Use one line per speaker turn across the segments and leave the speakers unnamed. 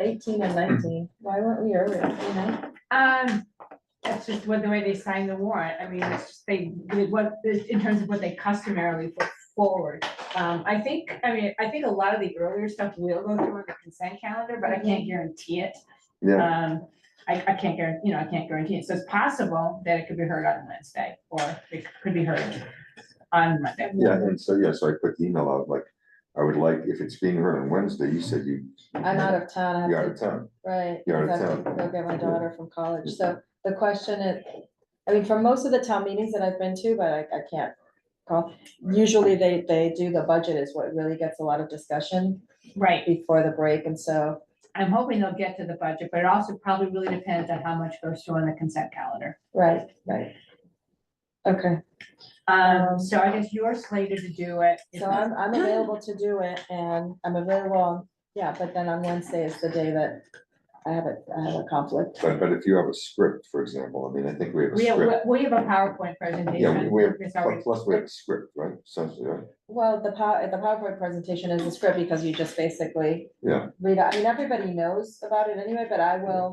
eighteen
Hmm.
and nineteen, why weren't we earlier, you know?
Um, that's just what the way they signed the warrant, I mean, it's just they, did what, in terms of what they customarily put forward. Um, I think, I mean, I think a lot of the earlier stuff will go through on the consent calendar, but I can't guarantee it.
Mhm. Yeah,
Um, I, I can't guarantee, you know, I can't guarantee it, so it's possible that it could be heard on Wednesday, or it could be heard on Monday.
yeah, and so, yeah, so I put the email out, like, I would like, if it's being heard on Wednesday, you said you.
I'm out of town, I have
You're out
to
of town,
Right.
You're out of
because I have to
town.
Go get my
Yeah.
daughter from college, so the question is, I mean, for most of the town meetings that I've been to, but I, I can't call. Usually they, they do the budget is what really gets a lot of discussion
Right,
before the break, and so,
I'm hoping they'll get to the budget, but it also probably really depends on how much goes through on the consent calendar.
right, right. Okay, Um,
Um, so I guess you're slated to do it. if
so
not-
I'm, I'm available to do it, and I'm available, yeah, but then on Wednesday is the day that I have a, I have a conflict.
but, but if you have a script, for example, I mean, I think we have a
We have,
script.
we- we have a PowerPoint
Yeah, we-
presentation.
we have,
It's
plus-
already-
plus we have a script, right, essentially, right?
Well, the pow, the PowerPoint presentation is the script because you just basically
yeah.
read, out- I mean, everybody knows about it anyway, but I will,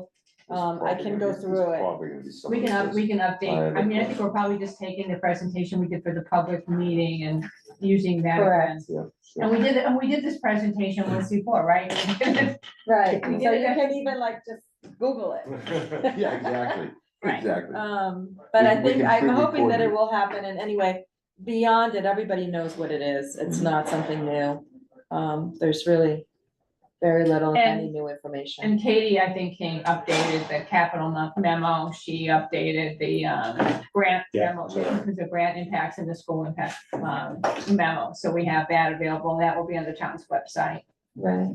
There's
Um, I
probably
can go
gonna be- there's
through it.
Probably gonna be some.
We
of
can, up-
this.
we can
I have
update.
a
I mean, I think
question.
we're probably just taking the presentation we did for the public meeting and using that.
Correct.
as-
Yeah, yeah.
And we did, and we did this presentation once before, right?
right, so
We
you
did it.
can even like just Google it.
Yeah, exactly,
Right.
exactly.
Um, but I
We- we
think,
can
I'm
pre-record
hoping that
it.
it will happen, and anyway, beyond it, everybody knows what it is, it's
Mhm.
not something new. Um, there's really very little, if any,
And-
new information.
And Katie, I think, came updated the capital mo- memo. She updated the um, grant
Yeah,
memo,
so-
the grant impacts and the school impact um, memo. So we have that available. That will be on the town's website.
Right,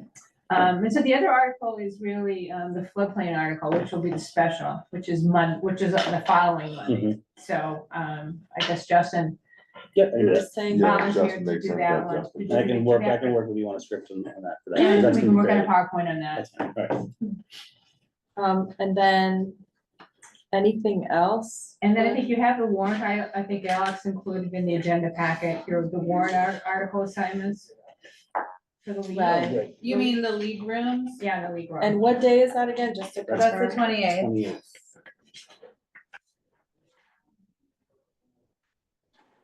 Um, and so the other article is really, um, the floodplain article, which will be the special, which is Mon, which is the following
Hmm. Mm-hmm.
Monday. So, um, I guess Justin
Yeah, I
I'm
do that.
just saying,
Yeah,
volunteered
Justin
to
makes
do
sense,
that
yeah,
one.
Justin.
Did you
I
do
can work, I
that?
can work with you on a script and on that. for
We
that. That's
can
gonna
work
be
on a
great.
PowerPoint on that.
That's fine, all right.
um, and then, anything else?
And then I think you have the warrant, I, I think Alex included in the agenda packet, your, the warrant ar- article assignments. For the
Right.
legal,
Great.
You mean the league rooms?
yeah, the legal.
And what day is that again, just to
That's the
confirm?
twenty eighth.
Twenty eighth.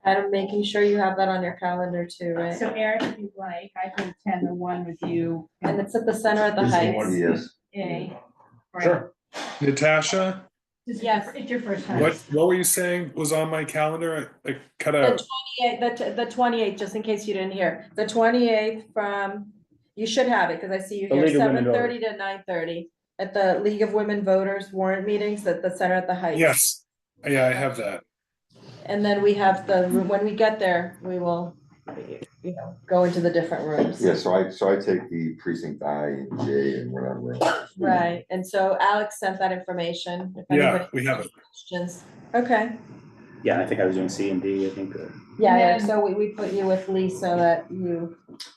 I'm making sure you have that on your calendar too, right?
So Eric, if you'd like, I can attend the one with you.
And it's at the center at the
Is it
Heights.
one-
Yes,
in- right.
Sure.
Natasha,
This is-
Yes.
It's your first time.
what, what were you saying was on my calendar? I I cut out.
Yeah, the, t- the twenty-eighth, just in case you didn't hear, the twenty-eighth from, you should have it, because I see you
The
here,
League of Women
seven thirty to nine thirty. At the League of Women Voters warrant meetings at the center at the Heights.
Yes, yeah, I have that.
And then we have the, when we get there, we will, you know, go into the different rooms.
yeah, so I, so I take the precinct I and J and whatever. else.
Right, and so Alex sent that information. if
Yeah,
anybody
we have it.
has Questions, okay,
Yeah, I think I was doing C and D, I think. uh,
yeah,
And
Eric,
then-
so we, we put you with Lee so that you,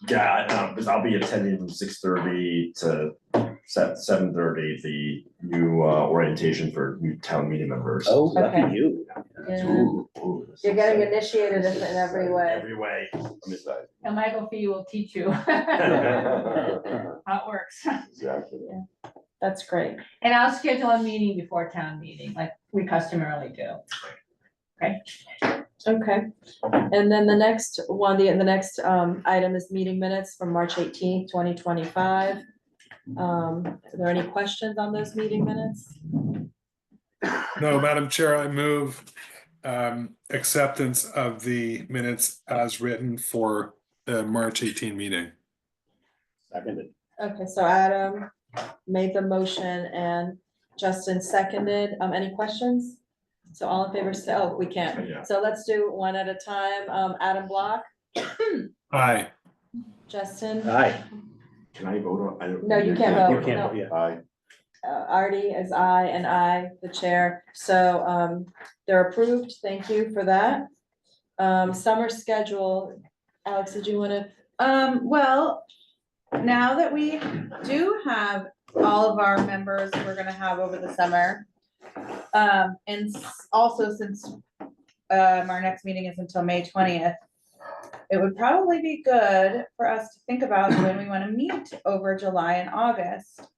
Yeah, I know, because I'll be attending from six thirty to seven, seven thirty, the new uh, orientation for new town meeting members.
Oh, lucky
Okay.
you.
you're
Ooh, ooh, this
you're
is
getting
exciting.
initiated in in every way.
Every way, I'm excited.
And Michael Fee will teach you how it works.
Exactly.
That's great.
And I'll schedule a meeting before town meeting, like we customarily do.
Okay, and then the next one, the, the next um item is meeting minutes from March eighteenth, twenty twenty-five. Um, are there any questions on those meeting minutes?
No, Madam Chair, I move um, acceptance of the minutes as written for the March 18 meeting.
Seconded.
Okay, so Adam made the motion and Justin seconded. Um, any questions? So all in favor, say, oh, we
Yeah.
can't. So let's do one at a time. Um, Adam Block,
Aye,
Justin,
Aye,
Can I vote on? I don't-
No, you can't
Oh,
you
vote.
can't,
no.
vote, yeah.
Aye,
uh, Artie is I and I, the chair. So, um, they're approved. Thank you for that. Um, summer schedule. Alex, did you want to?
Um, well, now that we do have all of our members we're gonna have over the summer. Um, and s- also since, um, our next meeting is until May twentieth. It would probably be good for us to think about when we wanna meet over July and August.